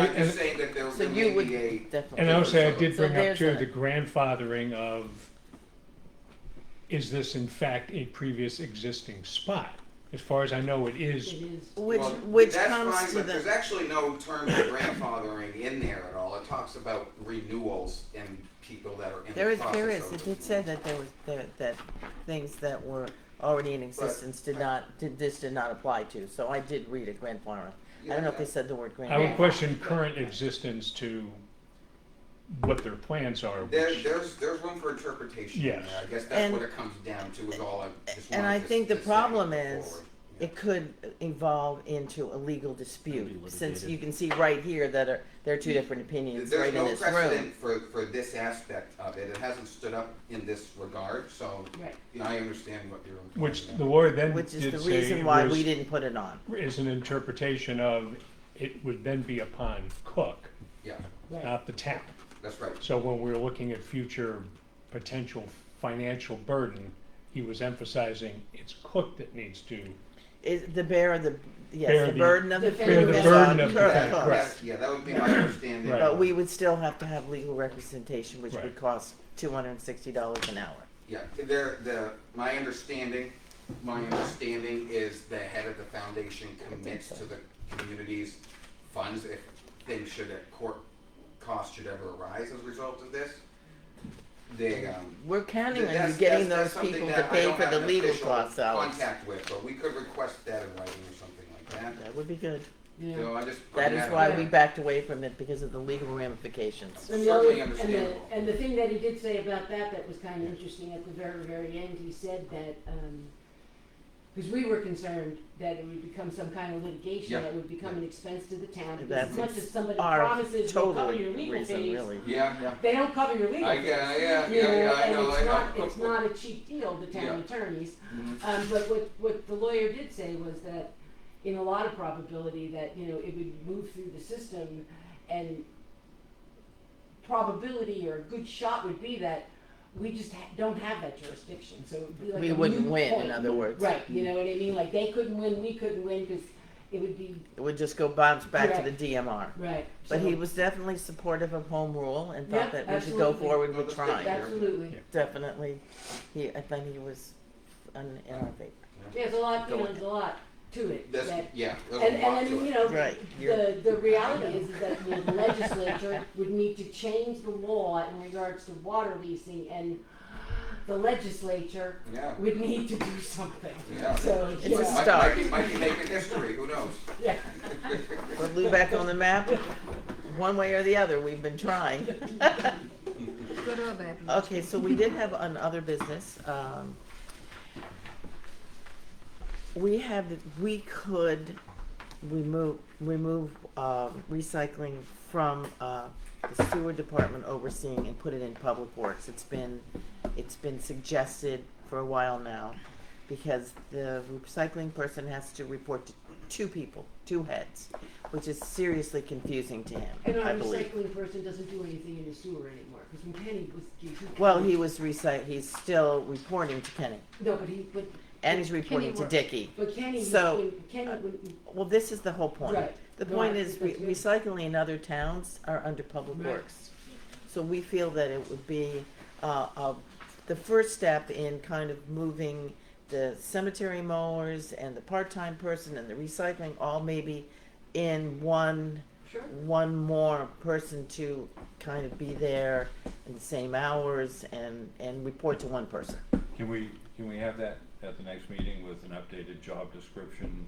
I'm And- just saying that there was So you would a definitely. And I would say I did So bring up there's too, that. the grandfathering of, is this in fact a previous existing spot? As far as I know, it is, Which, Well, which that's comes fine, to but There's the, actually no term of grandfathering in there at all. It talks about renewals and people that are in there the is, process. there is, of it did renewal. say that there was, that, that things that were already in existence did not, did, this did not apply to, so I did read a grandfather. I don't know if they said the word I would grandfather. question current existence to what their plans are, There, which, there's, there's room for interpretation. in Yes. there. I guess that's And- what it comes down to is all I just and wanted I to- think the to say problem forward. is Yeah. It could evolve into a legal dispute, Could be since litigated. you can see right here that are, there are two different opinions There's right in no this room. precedent for, for this aspect of it. It hasn't stood up in this regard, so Right. you know, I understand what you're. which implying the there. lawyer then did Which say is the reason why was- we didn't put it on. is an interpretation of, it would then be upon Cook, Yeah, not the town. that's right. So when we were looking at future potential financial burden, he was emphasizing it's Cook that needs to Is the bear of the, Bear yes, the the- burden of the. Bear proof the is burden on of the Kirk fact, Cook. right. Yes, yeah, that would be my understanding. Right. But we would still have to have legal representation, which Right. would cost two hundred and sixty dollars an hour. Yeah, there, the, my understanding, my understanding is the head of the foundation commits to the community's funds if things should, if court costs should ever arise as a result of this. They, um. We're counting on you that's- getting that's- those that's people something to that I pay don't for have the an legal official costs, Alex. Contact with, but we could request that in writing or something like that. That would be good. So I just. put That is out why there. we backed away from it because of the legal ramifications. And the other, Certainly and the, understandable. and the thing that he did say about that, that was kind of interesting at the very, very end, he said that, um, because we were concerned that it would become some kind of Yeah. litigation that would become an expense to the town. Because That's as much as somebody Our promises they'll cover totally your legal reason, fees, really. Yeah, yeah, they don't cover your legal I, fees. yeah, yeah, You know, yeah, yeah, I and know, I it's know. not, it's not a cheap deal, the Yeah. town attorneys. Mhm. Um, but what, what the lawyer did say was that in a lot of probability that, you know, it would move through the system and probability or a good shot would be that we just ha- don't have that jurisdiction, so it would be like We a wouldn't moot win, in point. other words. Right, you know what I mean, like they couldn't win, we couldn't win, cause it would be, It would just go bounce back to the Correct. DMR. right, so. But he was definitely supportive of home rule and thought Yeah, that we should go absolutely. forward Well, that's with good. trying. Absolutely, Yeah. Definitely, he, I think he was in in our favor. there's a lot, Go you know, ahead. there's a lot to it, That's, that yeah, there's a And, lot and to then, you it. know, Right, you're- the, the reality is that the legislature would need to change the law in regards to water leasing and the legislature Yeah. would need to do something. Yeah. So, It's you a know, Might- start. Might be, might be making history, who knows? yeah, Put Lou back on the map, one way or the other, we've been trying. Good or bad? Okay, so we did have an other business. um, We have, we could remove, remove um, recycling from uh, the sewer department overseeing and put it in public works. It's been, it's been suggested for a while now because the recycling person has to report to two people, two heads, which is seriously confusing to him, and I our believe. recycling person doesn't do anything in the sewer anymore, because when Kenny was. Well, he was recite, he's still reporting to Kenny, No, but he, but, and he's reporting to works. Dicky. but Kenny, So, uh, when, Kenny, when, Well, this is the whole point. Right. The No, point I is, re- think that's recycling in other towns are under public Right. works. So we feel that it would be, uh, uh, the first step in kind of moving the cemetery mowers and the part-time person and the recycling all maybe in one sure, one more person to kind of be there in the same hours and, and report to one person. Can we, can we have that at the next meeting with an updated job description?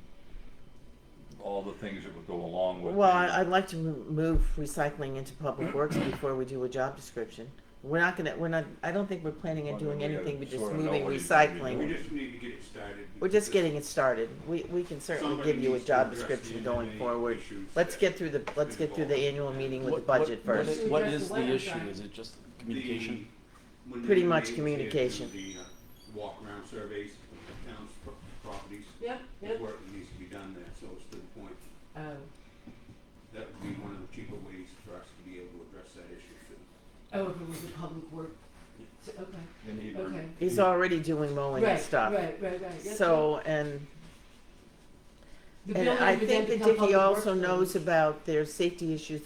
All the things that would go along with. Well, the- I- I'd like to mo- move recycling into public works before we do a job description. We're not gonna, we're not, I don't think we're planning on Well, then doing we gotta anything but just sorta know moving what he's gonna be We recycling. doing. just need to get it started. We're just getting it started. We, we can certainly give you a job description going forward. Let's get through the, let's get through the annual meeting with the What- what- budget what first. is- What is Address the the issue? website. Is it just communication? Pretty much communication. The uh, walk-around surveys, of towns, pro- properties, yep, the yep, work that needs to be done there, so it's to the point. oh, That would be one of the cheaper ways for us to be able to address that issue soon. oh, if it was a public work, so, okay, They need to- okay. He's already doing mowing and Right, stuff. Right, right, right, yep, yep. So, and, The and building I would think then that become Dicky public also works knows building. about their safety issues